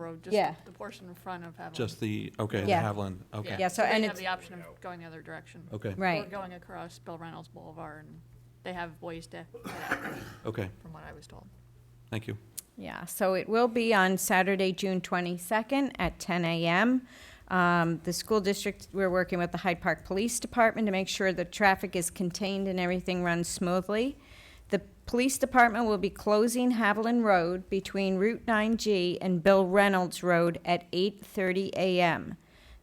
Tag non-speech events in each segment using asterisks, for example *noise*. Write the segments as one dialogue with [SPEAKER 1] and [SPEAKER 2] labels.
[SPEAKER 1] Road, just
[SPEAKER 2] Yeah.
[SPEAKER 1] the portion in front of Haviland.
[SPEAKER 3] Just the, okay, the
[SPEAKER 2] Yeah.
[SPEAKER 3] Haviland, okay.
[SPEAKER 2] Yeah, so- and
[SPEAKER 1] They have
[SPEAKER 2] it's-
[SPEAKER 1] the option of going the other direction.
[SPEAKER 3] Okay,
[SPEAKER 1] Or
[SPEAKER 2] Right.
[SPEAKER 1] going across Bill Reynolds Boulevard, and they have ways to, get out,
[SPEAKER 3] okay,
[SPEAKER 1] from what I was told.
[SPEAKER 3] thank you.
[SPEAKER 2] Yeah, so it will be on Saturday, June 22nd at 10 a.m. Um, The school district, we're working with the Hyde Park Police Department to make sure the traffic is contained and everything runs smoothly. The police department will be closing Haviland Road between Route 9G and Bill Reynolds Road at 8:30 a.m.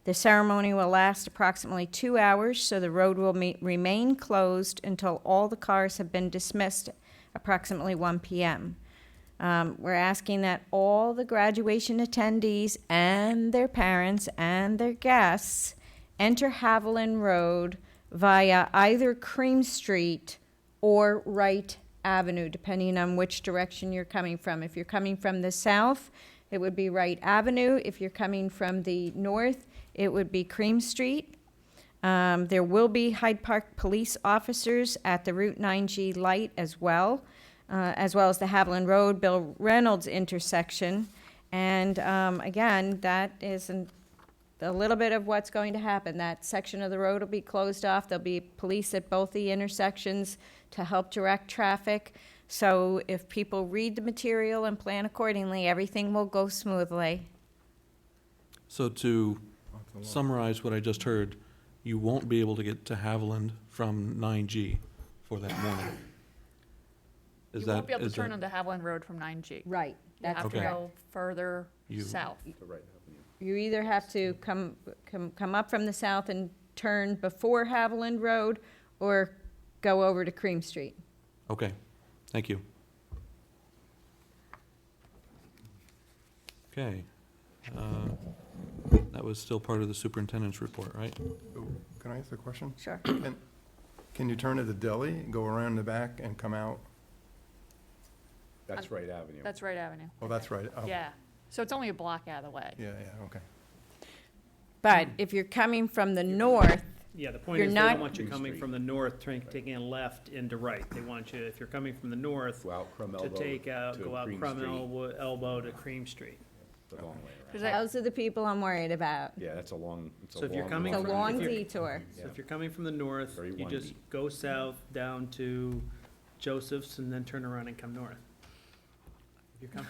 [SPEAKER 2] The ceremony will last approximately two hours, so the road will me- remain closed until all the cars have been dismissed approximately 1 p.m. Um, we're asking that all the graduation attendees and their parents and their guests enter Haviland Road via either Cream Street or Wright Avenue, depending on which direction you're coming from. If you're coming from the south, it would be Wright Avenue. If you're coming from the north, it would be Cream Street. Um, there will be Hyde Park police officers at the Route 9G light as well, uh, as well as the Haviland Road Bill Reynolds intersection. And um, again, that is an, a little bit of what's going to happen. That section of the road will be closed off. There'll be police at both the intersections to help direct traffic. So if people read the material and plan accordingly, everything will go smoothly.
[SPEAKER 3] So to summarize what I just heard, you won't be able to get to Haviland from 9G for that morning. Is
[SPEAKER 1] You
[SPEAKER 3] that?
[SPEAKER 1] won't be able
[SPEAKER 3] is
[SPEAKER 1] to turn
[SPEAKER 3] that-
[SPEAKER 1] onto Haviland Road from 9G.
[SPEAKER 2] Right.
[SPEAKER 1] You have to
[SPEAKER 3] correct.
[SPEAKER 1] go further
[SPEAKER 3] You-
[SPEAKER 1] south.
[SPEAKER 2] You either have to come, come, come up from the south and turn before Haviland Road or go over to Cream Street.
[SPEAKER 3] Okay, thank you. Okay. uh, That was still part of the superintendent's report, right?
[SPEAKER 4] Can I ask a question?
[SPEAKER 2] Sure.
[SPEAKER 4] Can, can you turn at the deli, go around the back and come out?
[SPEAKER 1] That's
[SPEAKER 5] Wright Avenue.
[SPEAKER 1] That's Wright Avenue.
[SPEAKER 4] Oh, that's right. Oh,
[SPEAKER 1] Yeah, so it's only a block out of the way.
[SPEAKER 4] Yeah, yeah, okay.
[SPEAKER 2] But if you're coming from the north,
[SPEAKER 6] Yeah, the point
[SPEAKER 2] You're
[SPEAKER 6] is they
[SPEAKER 2] not-
[SPEAKER 6] don't want you
[SPEAKER 5] Green
[SPEAKER 6] coming
[SPEAKER 5] Street.
[SPEAKER 6] from the north, turning, taking a left into right. They want you, if you're coming from the north,
[SPEAKER 5] Go out Crum
[SPEAKER 6] to
[SPEAKER 5] Elbow
[SPEAKER 6] take out,
[SPEAKER 5] to
[SPEAKER 6] go out
[SPEAKER 5] Cream
[SPEAKER 6] Crum
[SPEAKER 5] Street,
[SPEAKER 6] Elbow, elbow to Cream Street.
[SPEAKER 5] the long way around.
[SPEAKER 1] Does that-
[SPEAKER 2] those are the people I'm worried about.
[SPEAKER 5] Yeah, that's a long, it's a long.
[SPEAKER 6] So if you're coming
[SPEAKER 2] It's a
[SPEAKER 5] walk.
[SPEAKER 6] from-
[SPEAKER 2] long
[SPEAKER 6] if you're-
[SPEAKER 2] detour.
[SPEAKER 6] So if you're coming from the north,
[SPEAKER 5] Very
[SPEAKER 6] you just
[SPEAKER 5] windy.
[SPEAKER 6] go south down to Joseph's and then turn around and come north. If you're com-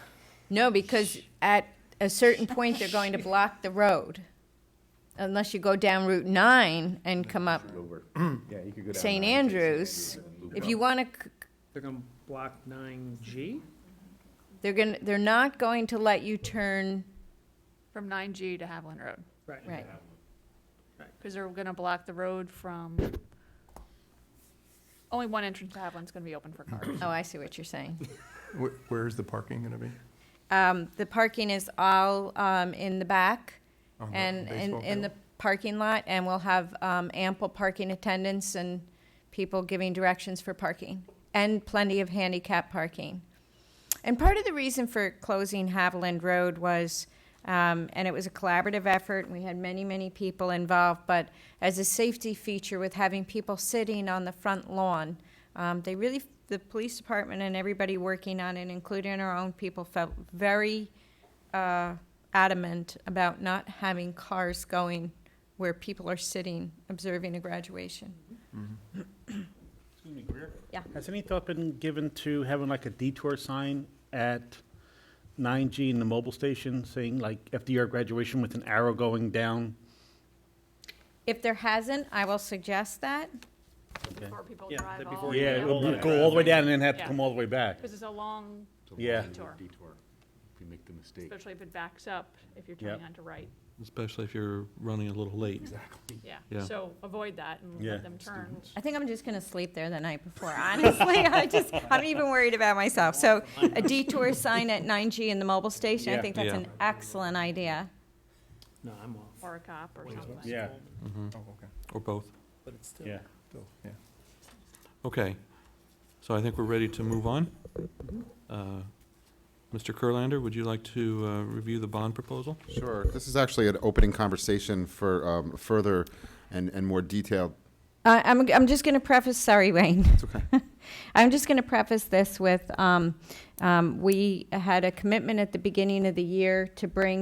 [SPEAKER 2] No, because at a certain point, they're going to block the road. Unless you go down Route 9 and come up.
[SPEAKER 6] *clears throat*
[SPEAKER 5] Over. Yeah, you could go down.
[SPEAKER 2] St.
[SPEAKER 5] nine, take
[SPEAKER 2] Andrews,
[SPEAKER 5] St. Andrews and
[SPEAKER 2] If
[SPEAKER 5] loop
[SPEAKER 2] you
[SPEAKER 5] up.
[SPEAKER 2] want to,
[SPEAKER 6] They're gonna block nine G?
[SPEAKER 2] they're going, to they're not going to let you turn,
[SPEAKER 1] From 9G to Haviland Road,
[SPEAKER 6] Right.
[SPEAKER 2] right.
[SPEAKER 1] because they're going to block the road from, only one entrance to Haviland's going to be open for cars.
[SPEAKER 2] Oh, I see what you're saying.
[SPEAKER 4] Where, where is the parking gonna be?
[SPEAKER 2] Um, the parking is all, um, in the back
[SPEAKER 4] On the
[SPEAKER 2] and in,
[SPEAKER 4] baseball
[SPEAKER 2] in the
[SPEAKER 4] field?
[SPEAKER 2] parking lot, and we'll have, um, ample parking attendants and people giving directions for parking, and plenty of handicap parking. And part of the reason for closing Haviland Road was, um, and it was a collaborative effort, and we had many, many people involved, but as a safety feature with having people sitting on the front lawn, um, they really, the police department and everybody working on it, including our own people, felt very uh, adamant about not having cars going where people are sitting observing a graduation.
[SPEAKER 7] Excuse me, Greer?
[SPEAKER 2] Yeah.
[SPEAKER 7] Has any thought been given to having like a detour sign at 9G and the mobile station saying like FDR graduation with an arrow going down?
[SPEAKER 2] If there hasn't, I will suggest that.
[SPEAKER 1] Before people
[SPEAKER 6] Yeah,
[SPEAKER 1] drive
[SPEAKER 6] that
[SPEAKER 1] all
[SPEAKER 6] before
[SPEAKER 1] the
[SPEAKER 6] you
[SPEAKER 1] way
[SPEAKER 7] Yeah,
[SPEAKER 6] Yeah.
[SPEAKER 7] it
[SPEAKER 1] up.
[SPEAKER 6] All
[SPEAKER 7] would
[SPEAKER 6] that
[SPEAKER 7] go all the way down and then have to
[SPEAKER 1] Yeah.
[SPEAKER 7] come all the way baback.
[SPEAKER 1] Because it's a long,
[SPEAKER 5] It's a
[SPEAKER 7] Yeah.
[SPEAKER 5] long
[SPEAKER 1] Detour.
[SPEAKER 5] Detour. If you make the mistake.
[SPEAKER 1] especially if it backs up, if you're turning
[SPEAKER 7] Yep.
[SPEAKER 1] onto
[SPEAKER 5] *laughs*
[SPEAKER 1] right,
[SPEAKER 3] Especially if you're running a little late.
[SPEAKER 1] yeah.
[SPEAKER 3] Yeah.
[SPEAKER 1] So avoid that and
[SPEAKER 7] Yeah.
[SPEAKER 1] let them turn.
[SPEAKER 2] I think I'm just going to sleep there the night before. Honestly, I just, I'm even worried about myself. So a detour sign at 9G in the mobile station, I
[SPEAKER 7] Yeah.
[SPEAKER 2] think that's
[SPEAKER 3] Yeah.
[SPEAKER 2] an excellent idea.
[SPEAKER 6] No, I'm off.
[SPEAKER 1] Or a cop or something.
[SPEAKER 7] Yeah.
[SPEAKER 4] Oh, okay,
[SPEAKER 3] Or both.
[SPEAKER 6] But it's still.
[SPEAKER 7] Yeah.
[SPEAKER 4] Bill, yeah.
[SPEAKER 3] Okay. So I think we're ready to move on. Uh, Mr. Kurlander, would you like to uh, review the bond proposal?
[SPEAKER 8] Sure. This is actually an opening conversation for um, further and, and more detailed
[SPEAKER 2] Uh, I'm, I'm just going to preface, sorry, Wayne. It's okay. *laughs* I'm just going to preface this with um, um, we had a commitment at the beginning of the year to bring